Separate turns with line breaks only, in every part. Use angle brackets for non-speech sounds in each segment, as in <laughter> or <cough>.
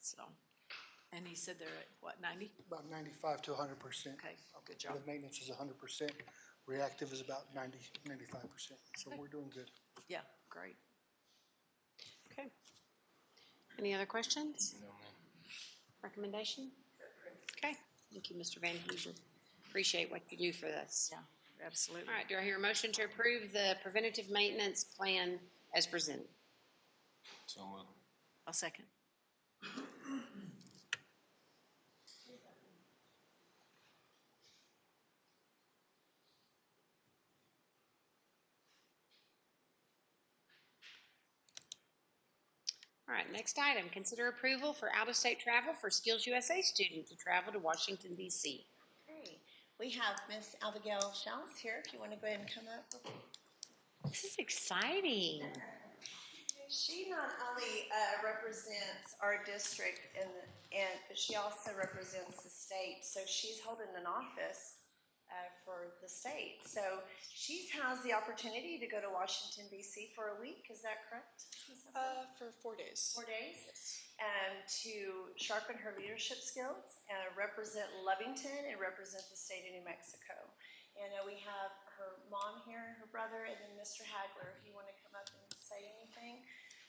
so. And he said they're at, what, ninety?
About ninety-five to hundred percent.
Okay, Oh, good job.
The maintenance is hundred percent, reactive is about 90 95 percent, so
Okay.
we're doing good.
Yeah, great.
Okay. Any other questions? Recommendation? Okay, thank you, Mr. Van Huzen. Appreciate what you do for us.
Yeah, absolutely.
All right, do I hear a motion to approve the preventative maintenance plan as presented?
So moved.
I'll second.
All right, next item, consider approval for out-of-state travel for Skills USA students to travel to Washington DC.
Okay, We have Miss Abigail Schaus here, if you want to go ahead and come up.
This is exciting.
She not only uh, represents our district and, and, but she also represents the state. So she's holding an office uh, for the state. So she has the opportunity to go to Washington DC for a week, is that correct? Ms. Abigail?
Uh, for four days.
four days um, to sharpen her leadership skills and represent Lovington and represent the state of New Mexico. And uh, we have her mom here, her brother, and then Mr. Hagler, if you want to come up and say anything.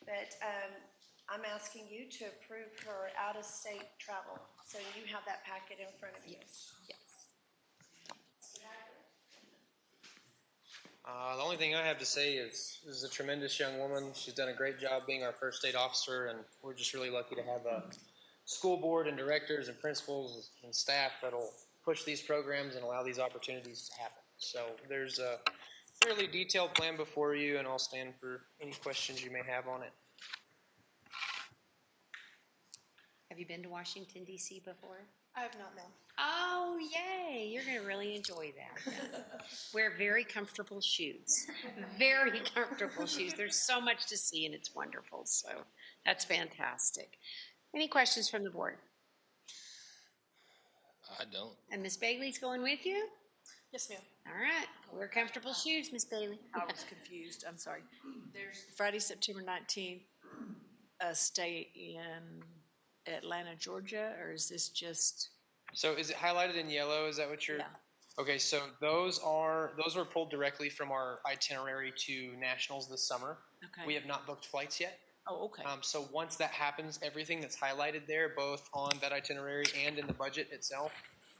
But um, I'm asking you to approve her out-of-state travel. So you have that packet in front of you.
Uh, the only thing I have to say is this is a tremendous young woman. She's done a great job being our first state officer, and we're just really lucky to have a school board and directors and principals and staff that'll push these programs and allow these opportunities to happen. So there's a fairly detailed plan before you, and I'll stand for any questions you may have on it.
Have you been to Washington DC before?
I have not, ma'am.
Oh, yay. You're going to really enjoy that.
<laughs>
Wear very comfortable shoes. Very comfortable shoes. There's so much to see and it's wonderful. So that's fantastic. Any questions from the board?
I don't.
And Miss Bailey's going with you?
Yes, ma'am.
All right. Wear comfortable shoes, Miss Bailey.
I was confused, I'm sorry. There's Friday, September nineteenth, a stay in Atlanta, Georgia, or is this just?
So is it highlighted in yellow? Is that what you're?
Yeah.
Okay, so those are those were pulled directly from our itinerary to nationals this summer. We
Okay,
have not booked flights yet.
oh, okay,
Um, so once that happens, everything that's highlighted there, both on that itinerary and in the budget itself,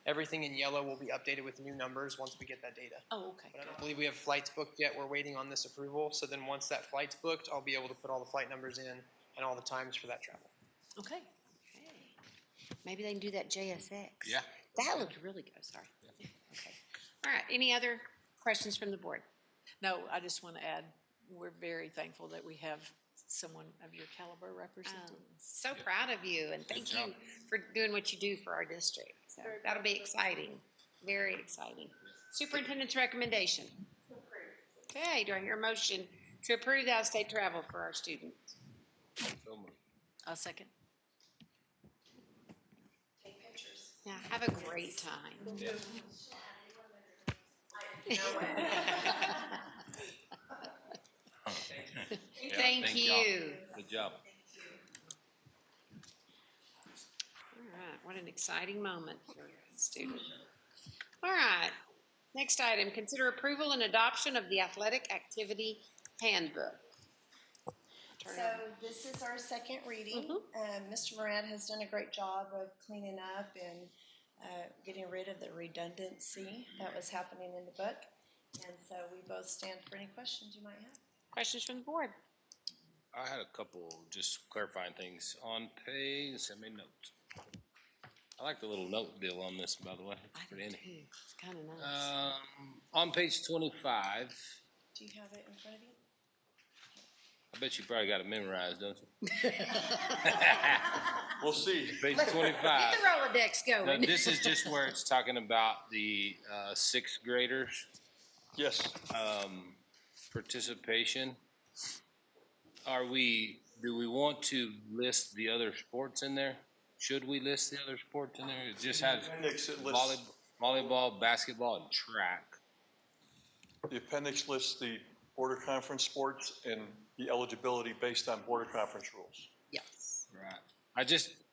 everything in yellow will be updated with new numbers once we get that data.
oh, okay,
But I
good.
don't believe we have flights booked yet. We're waiting on this approval. So then once that flight's booked, I'll be able to put all the flight numbers in and all the times for that travel.
okay.
Maybe they can do that JSX.
Yeah.
That looked really good. Sorry. Okay. All right. Any other questions from the board?
No, I just want to add, we're very thankful that we have someone of your caliber representing
Um,
us.
So proud of you and thank you
job.
for doing what you do for our district. So that'll be exciting, very exciting. Superintendent's recommendation. Okay, do I hear a motion to approve the out-of-state travel for our students?
So moved.
I'll second.
Now, have a great time. <laughs>
Yeah,
Thank you.
y'all.
All
Good job.
right, what an exciting moment for students. All right, next item, consider approval and adoption of the athletic activity handbook. Turn it Mm-hmm.
So
over.
this is our second reading. Um, Mr. Moran has done a great job of cleaning up and uh, getting rid of the redundancy that was happening in the book. And so we both stand for any questions you might have.
Questions from the board?
I had a couple just clarifying things on page. I made notes. I like the little note deal on this, by the way. It's pretty handy.
It's kind of nice.
Um, on page twenty-five,
Do you have it in front of you?
I bet you probably got it memorized, don't you? We'll see. Page twenty-five.
Get the Rolodex
Now,
going.
this is just where it's talking about the, uh, sixth graders.
Yes,
um, participation. Are we, do we want to list the other sports in there? Should we list the other sports in there? It just has
appendix, it
volley,
lists,
volleyball, basketball, and track.
the appendix lists the border conference sports and the eligibility based on border conference rules.
<laughs> Yes.
Right. I just,